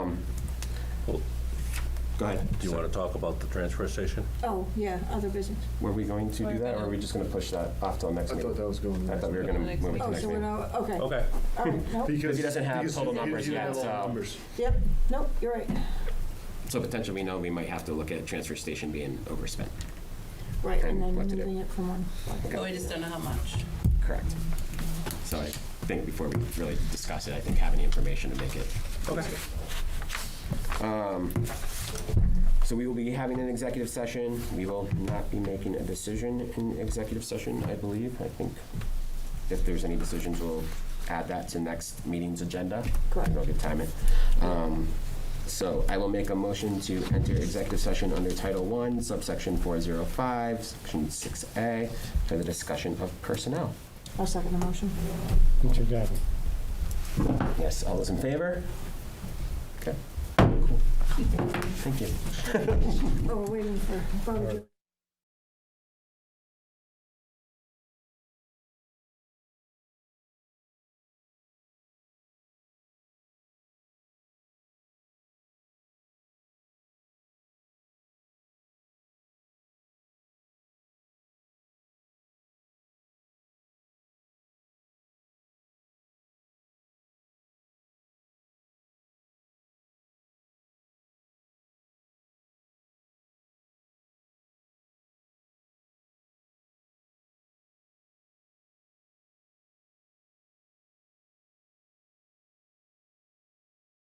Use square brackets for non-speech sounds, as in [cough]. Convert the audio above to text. Um, Go ahead. Do you want to talk about the transfer station? Oh, yeah, other business. Were we going to do that, or are we just gonna push that off till next I meeting? thought that was going. I thought we were gonna Next move it to Oh, next so we're meeting. not, okay. All Okay. [laughs] right, nope, Because he doesn't have because total you- you- numbers you yet, have all the so- numbers. yep, nope, you're right. So potentially, no, we might have to look at transfer station being overspent. Right, and And then what to do. moving it from one. But we just don't know how much. Correct. So I think before we really discuss it, I think having the information to make it. Okay. So we will be having an executive session. We will not be making a decision in executive session, I believe. I think if there's any decisions, we'll add that to next meeting's agenda. Correct. Real good timing. Um, So I will make a motion to enter executive session under Title I, subsection 405, section 6A, for the discussion of personnel. I'll second the motion. Richard Gavin. Yes, all those in favor? Okay. Cool. Thank you. Oh, we're waiting for, Barbara.